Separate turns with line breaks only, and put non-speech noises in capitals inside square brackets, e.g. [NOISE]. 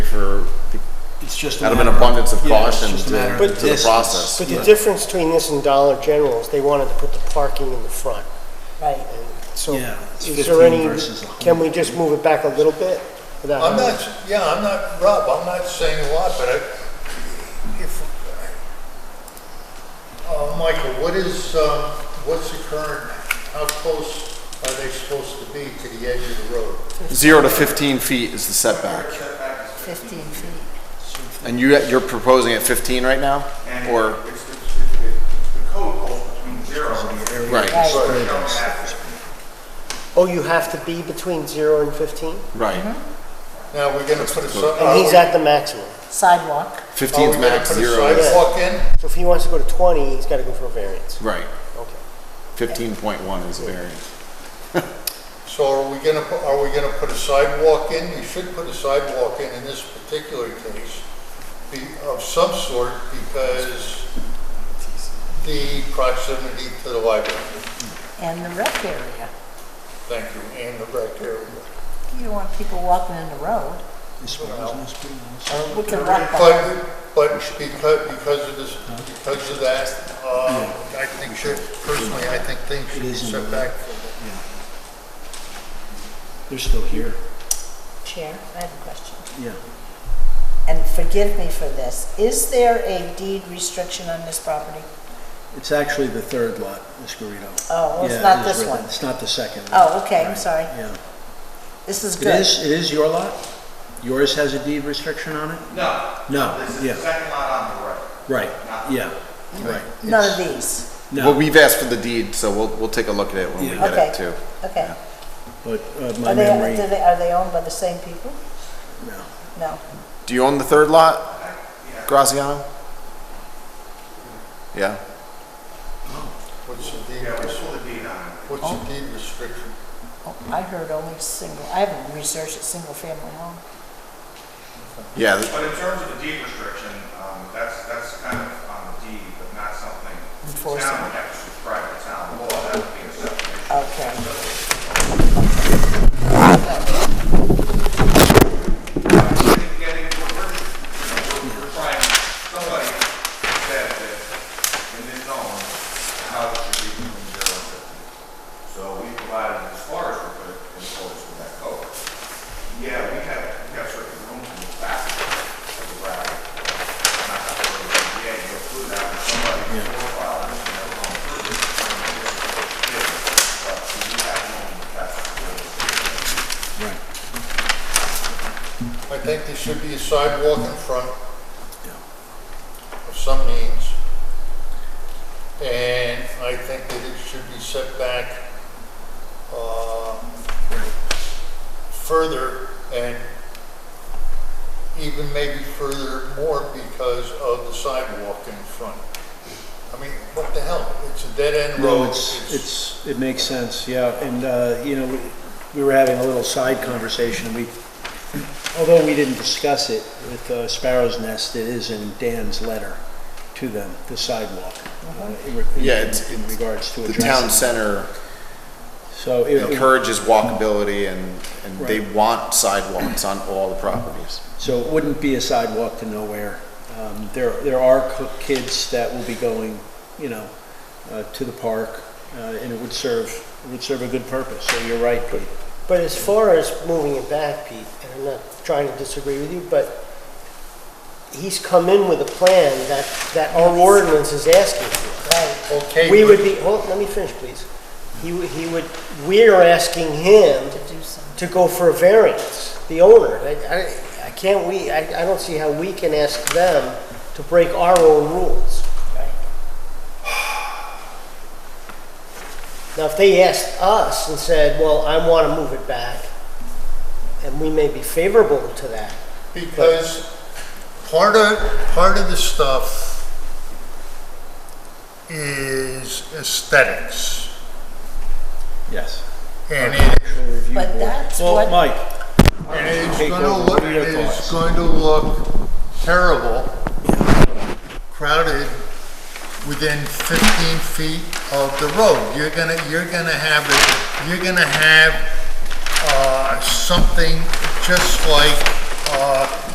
just. a
out of an
matter
abundance of
yeah, it's
caution
just a matter
to
of
to the
distance.
process.
But the difference between this and Dollar General is they wanted to put the parking in the front.
Right.
So
Yeah, it's
is there
15
any,
versus 100.
can we just move it back a little bit? without
I'm
having-
not, yeah, I'm not, Rob, I'm not saying a lot, but I, if, uh, Michael, what is, um, what's the current, how close are they supposed to be to the edge of the road?
Zero to 15 feet is the setback.
15 feet.
And you, you're proposing at 15 right now?
And
Or,
it's the, it's the, it's the code goes between zero and the area.
right,
So
Right.
you don't have to.
Oh, you have to be between zero and 15?
right.
Mm-hmm. Now, we're gonna put a, si-
Uh,
And he's
are
at the maximum.
we- are
Sidewalk.
we
15's
Oh, gonna
max,
put a
zero is,
sidewalk in?
So if he wants to go to 20, he's got to go for a variance.
right.
Okay.
15.1 is a variance.
So are we gonna, pu- are we gonna put a sidewalk in? You should put a sidewalk in in this particular case be- of some sort because the proximity to the library.
And the rec area.
Thank you, and the rec area.
You don't want people walking in the road.
This one isn't as big as-
Uh, We can walk by.
But, but because, because of this, because of that, uh, I think should, personally, I think things should be set back.
They're still here,
Chair, I have a question.
yeah.
And forgive me for this. Is there a deed restriction on this property?
It's actually the third lot, Escondido.
Oh, it's
Yeah, it
not
is
this
written.
one.
It's not the second.
Oh,
lot.
okay, I'm
Right,
sorry.
Yeah.
This is
It
good.
is, it is your lot? Yours has a deed restriction on it?
No.
No,
This is
yeah.
the second lot on the right.
Right, yeah, right.
None of these.
Well,
No,
we've asked for the deed, so we'll, we'll take a look at it when we
Yeah.
get
Okay.
it too.
Okay.
but uh, my
Are they,
memory,
do they, are they owned by the same people?
no.
No.
Do you own the third lot, Graziano? Yeah?
What's the deed,
Yeah, we saw the deed on it.
what's the deed restriction?
Oh, I heard only single, I haven't researched a single family home.
Yeah, th-
But in terms of the deed restriction, um, that's, that's kind of on the deed, but not something. the Town
Enforceable.
would have to subscribe to town law, that would be a separate issue.
Okay.
getting, we're, we're, you know, we're we're trying, somebody said that in this zone, the house should be between zero and fifty. So we provided as far as we could in accordance with that code. Yeah, we have, we have certain rooms in the back of the garage. Not that we're, yeah, you go through that, but somebody profiled and they're going through it. But we have no, that's,
I think there should be a sidewalk in front of some means. And I think that it should be set back, uh, further and even maybe further more because of the sidewalk in front. I mean, what the hell? It's a dead-end road.
No, it's, it's, it makes sense, yeah, and, uh, you know, we- we were having a little side conversation, we, although we didn't discuss it with uh, Sparrow's Nest, it is in Dan's letter to them, the sidewalk. uh, in re- in-
Yeah, it's-
In
it's-
regards to
the town
addressing.
center
So it- it,
encourages walkability and, and they
Right.
want sidewalks on all the properties.
So it wouldn't be a sidewalk to nowhere. Um, There, there are co- kids that will be going, you know, uh, to the park, uh, and it would serve, it would serve a good purpose, so you're right, Pete.
But as far as moving it back, Pete, and I'm not trying to disagree with you, but he's come in with a plan that, that our ordinance is asking for.
Okay,
We
but-
would be, hold, let me finish, please. He, would- he would, we're asking him
To do some,
to go for a variance, the owner. I, I- I can't, we, I, I don't see how we can ask them to break our own rules.
right.
[SIGHS] Now, if they asked us and said, well, I want to move it back, and we may be favorable to that,
Because part of, part of the stuff is aesthetics.
Yes.
And it,
Architectural review
But
board.
that's
Well,
what-
Mike,
and it's
Take
gonna
over.
look,
What are your
it's
thoughts?
going to look terrible, crowded within fifteen feet of the road. You're gonna, you're gonna have it, you're gonna have, uh, something just like, uh,